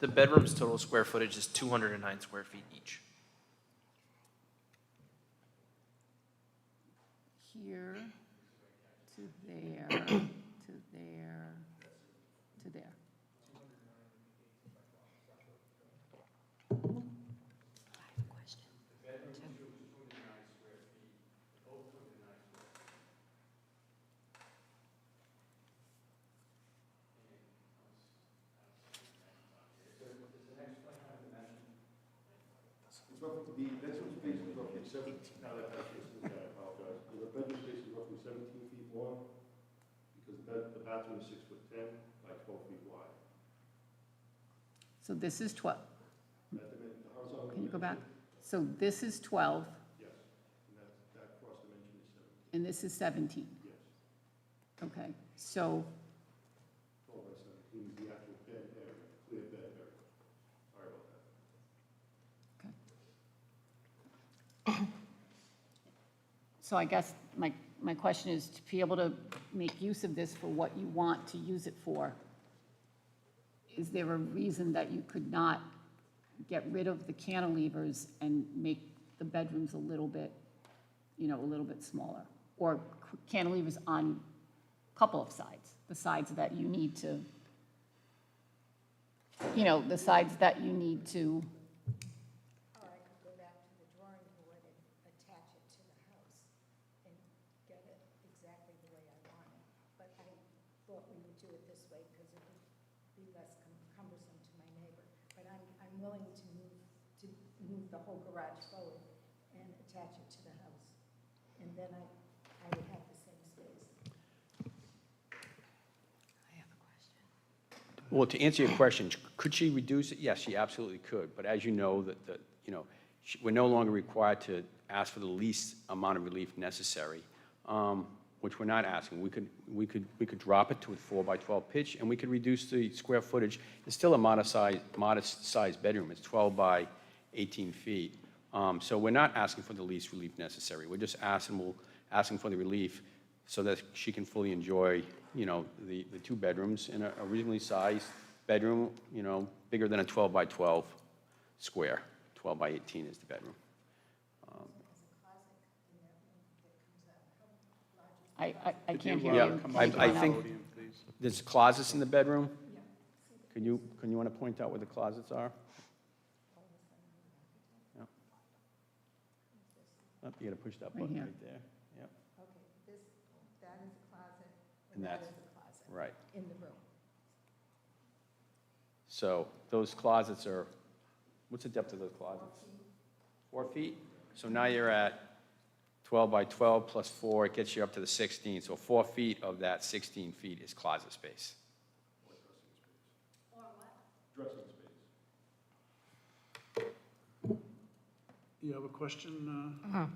The bedroom's total square footage is 209 square feet each. here to there, to there, to there. So this is 12. Can you go back? So this is 12. Yes, and that, cross dimension is 17. And this is 17? Yes. Okay, so. 12 by 17 is the actual bed area, clear bed area. Sorry about that. Okay. So I guess my, my question is to be able to make use of this for what you want to use it for is there a reason that you could not get rid of the cantilevers and make the bedrooms a little bit, you know, a little bit smaller? Or cantilevers on a couple of sides, the sides that you need to, you know, the sides that you need to, Or I could go back to the drawing board and attach it to the house and get it exactly the way I want it. But I thought we would do it this way because it would be less cum- cumbersome to my neighbor. But I'm, I'm willing to move, to move the whole garage forward and attach it to the house. And then I, I would have the same space. Well, to answer your question, could she reduce it? Yes, she absolutely could, but as you know, that, that, you know, she- we're no longer required to ask for the least amount of relief necessary, um, which we're not asking. We could, we could, we could drop it to a four by 12 pitch, and we could reduce the square footage. It's still a modest size, modest sized bedroom, it's 12 by 18 feet. Um, So we're not asking for the least relief necessary, we're just asking, we'll, asking for the relief so that she can fully enjoy, you know, the, the two bedrooms in a a reasonably sized bedroom, you know, bigger than a 12 by 12 square. 12 by 18 is the bedroom. I, I, I can't hear Yeah, you. I, Come I on up. think, there's closets in the bedroom? Can you, can you want to point out where the closets are? Yeah. Up, Oh, you got to push that Right button here. right there. Yep, Okay, this, that is a closet, And and that that's- is a closet right. in the room. So those closets are, what's the depth of those closets? Four feet? So now you're at 12 by 12 plus four, it gets you up to the 16. So four feet of that 16 feet is closet space. You have a question? uh,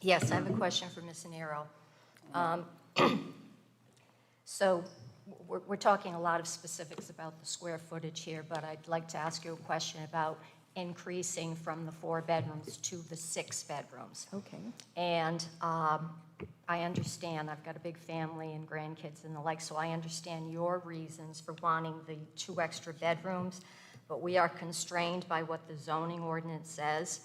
Yes, I have a question for Ms. Nero. Um, So we're, we're talking a lot of specifics about the square footage here, but I'd like to ask you a question about increasing from the four bedrooms to the six bedrooms. Okay. And um, I understand, I've got a big family and grandkids and the like, so I understand your reasons for wanting the two extra bedrooms, but we are constrained by what the zoning ordinance says,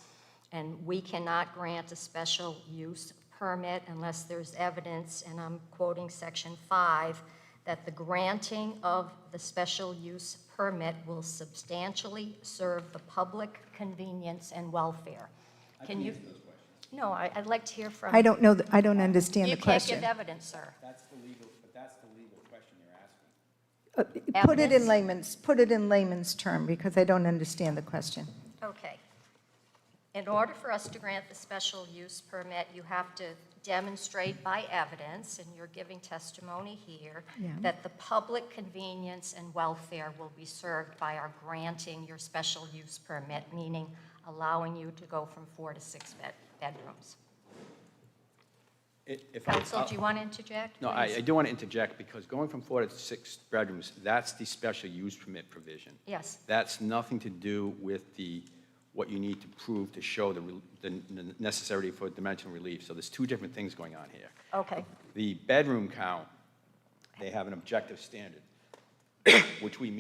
and we cannot grant a special use permit unless there's evidence, and I'm quoting section five, that the granting of the special use permit will substantially serve the public convenience and welfare. Can you? No, I, I'd like to hear from. I don't know, th- I don't understand You the can't question. give evidence, sir. That's the legal, but that's the legal question you're asking. Uh, Put it in Evidence? layman's, put it in layman's term, because I don't understand the question. Okay. In order for us to grant the special use permit, you have to demonstrate by evidence, and you're giving testimony here, Yeah. that the public convenience and welfare will be served by our granting your special use permit, meaning allowing you to go from four to six bed, bedrooms. It- If I- Counsel, do you want to interject? Uh, No, I, please? I do want to interject because going from four to six bedrooms, that's the special use permit provision. Yes. That's nothing to do with the, what you need to prove to show the, rel- the n- necessity for dimensional relief. So there's two different things going on here. Okay. The bedroom count, they have an objective standard, which we meet